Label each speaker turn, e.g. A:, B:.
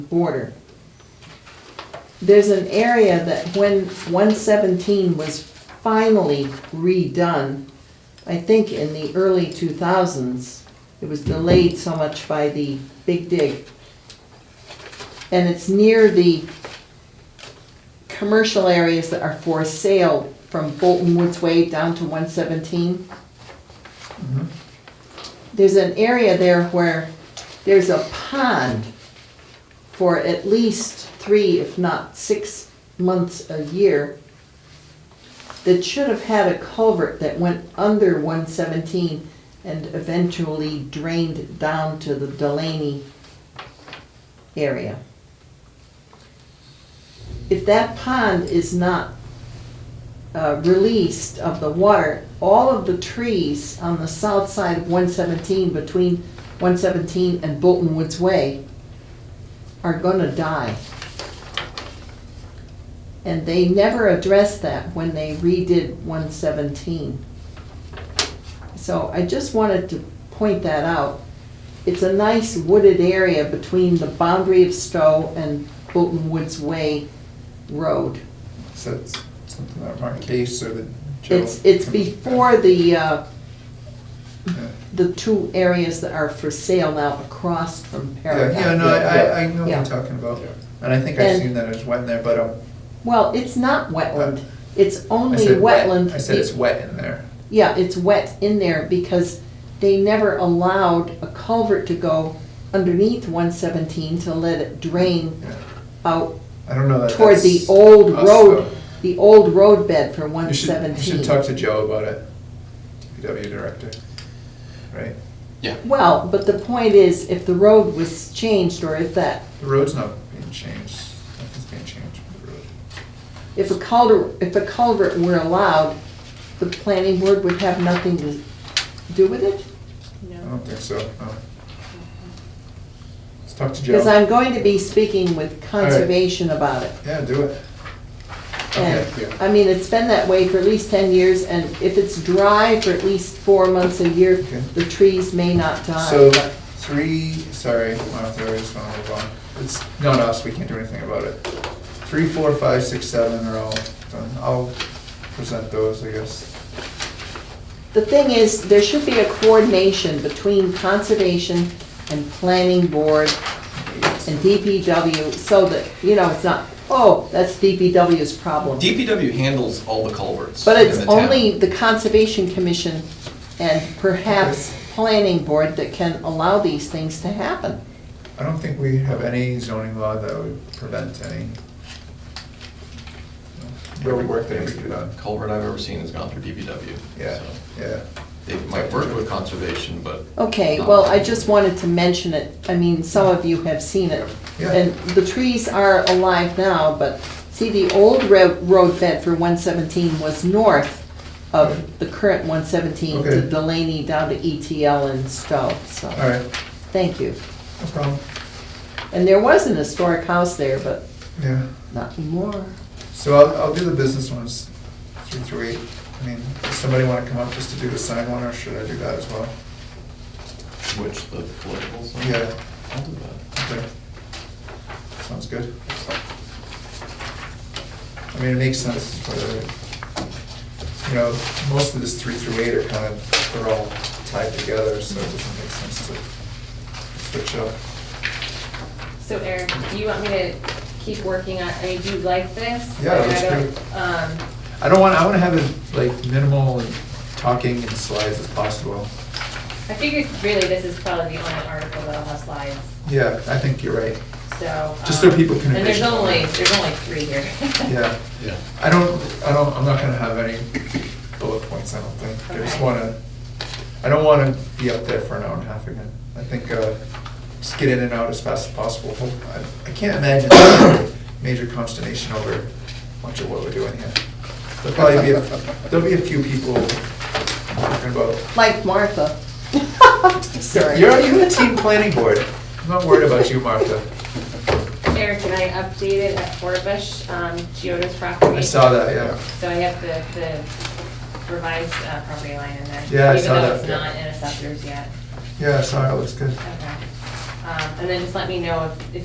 A: border. There's an area that when one seventeen was finally redone, I think in the early two thousands, it was delayed so much by the big dig. And it's near the commercial areas that are for sale from Bolton Woods Way down to one seventeen. There's an area there where there's a pond for at least three, if not six months a year that should have had a culvert that went under one seventeen and eventually drained down to the Delaney area. If that pond is not uh, released of the water, all of the trees on the south side of one seventeen, between one seventeen and Bolton Woods Way, are gonna die. And they never addressed that when they redid one seventeen. So I just wanted to point that out. It's a nice wooded area between the boundary of Stowe and Bolton Woods Way Road.
B: So it's something that Mark Case or the Joe.
A: It's, it's before the, uh,
B: Yeah,
A: the two areas that are for sale now across from
B: Yeah,
A: Paragon.
B: yeah, no, I, I- I know what
A: Yeah.
B: you're talking about,
C: Yeah.
B: and I think I've
A: And-
B: seen that as wet in there, but, um,
A: Well, it's not wetland, it's
B: Uh, I
A: only
B: said wet,
A: wetland.
B: I said it's wet in there.
A: Yeah, it's wet in there because they never allowed a culvert to go underneath one seventeen to let it drain
B: Yeah.
A: out
B: I don't know that
A: toward the
B: that's
A: old
B: us,
A: road,
B: though.
A: the old road bed for one
B: You should, you
A: seventeen.
B: should talk to Joe about it, DPW director, right?
A: Well, but the point is, if the road was changed or if that,
B: The road's not being changed, nothing's being changed with the road.
A: if a culvert, if a culvert were allowed, the planning board would have nothing to do with it?
B: I don't think so, no. Let's talk to Joe.
A: Because I'm going to be speaking with conservation about it.
B: Yeah, do it. Okay,
A: And,
B: yeah.
A: I mean, it's been that way for at least ten years, and if it's dry for at least four months a year,
B: Okay.
A: the trees may not die.
B: So, three, sorry, Martha, I just wanna move on. It's not us, we can't do anything about it. Three, four, five, six, seven are all done. I'll present those, I guess.
A: The thing is, there should be a coordination between conservation and planning board and DPW, so that, you know, it's not, oh, that's DPW's problem.
C: DPW handles all the culverts.
A: But it's
C: in the town.
A: only the Conservation Commission and perhaps Planning Board that can allow these things to happen.
B: I don't think we have any zoning law that would prevent any road work that needs to be done.
C: Culvert I've ever seen has gone through DPW.
B: Yeah,
C: so
B: yeah.
C: They might work with conservation, but
A: Okay, well, I just wanted to mention it. I mean, some of you have seen it.
B: Yeah.
A: And the trees are alive now, but see, the old ro- road bed for 117 was north of the current 117 to
B: Okay.
A: Delaney down to ETL and Stowe,
B: All
A: so,
B: right,
A: thank you.
B: no problem.
A: And there was an historic house there, but
B: Yeah.
A: not anymore.
B: So I'll, I'll do the business ones, three through eight. I mean, does somebody wanna come up just to do the sign one, or should I do that as well?
C: which the political side.
B: Yeah.
C: I'll do that.
B: Okay. Sounds good. I mean, it makes sense, but, uh, you know, most of this three through eight are kind of, they're all tied together, so it doesn't make sense to switch up.
D: So Eric, do you want me to keep working on, I mean, do you like this?
B: Yeah,
D: Like, I
B: that's
D: don't-
B: great.
D: Um,
B: I don't want, I wanna have it like minimal and talking and slides as possible.
D: I figured really this is probably the only article that'll have slides,
B: Yeah, I think you're right.
D: so.
B: Just so
D: um,
B: people can
D: And there's
B: envision.
D: only, there's only three here.
B: Yeah.
C: Yeah.
B: I don't, I don't, I'm not gonna have any bullet points, I don't think. I just
D: Okay.
B: wanna, I don't wanna be up there for an hour and a half again. I think, uh, just get in and out as fast as possible. Hope- I I can't imagine major consternation over much of what we're doing here. There'll probably be, a- there'll be a few people talking about,
A: Like Martha. Sorry.
B: you're, you're the team planning board. I'm not worried about you, Martha.
D: Eric, and I updated at Forbush, um, Geoda's property.
B: I saw that, yeah.
D: So I have the, the revised uh, property line in there.
B: Yeah, I saw that,
D: Even though it's
B: yeah.
D: not in assessors yet.
B: Yeah, I saw it, it looks good.
D: Okay. Um, and then just let me know if, if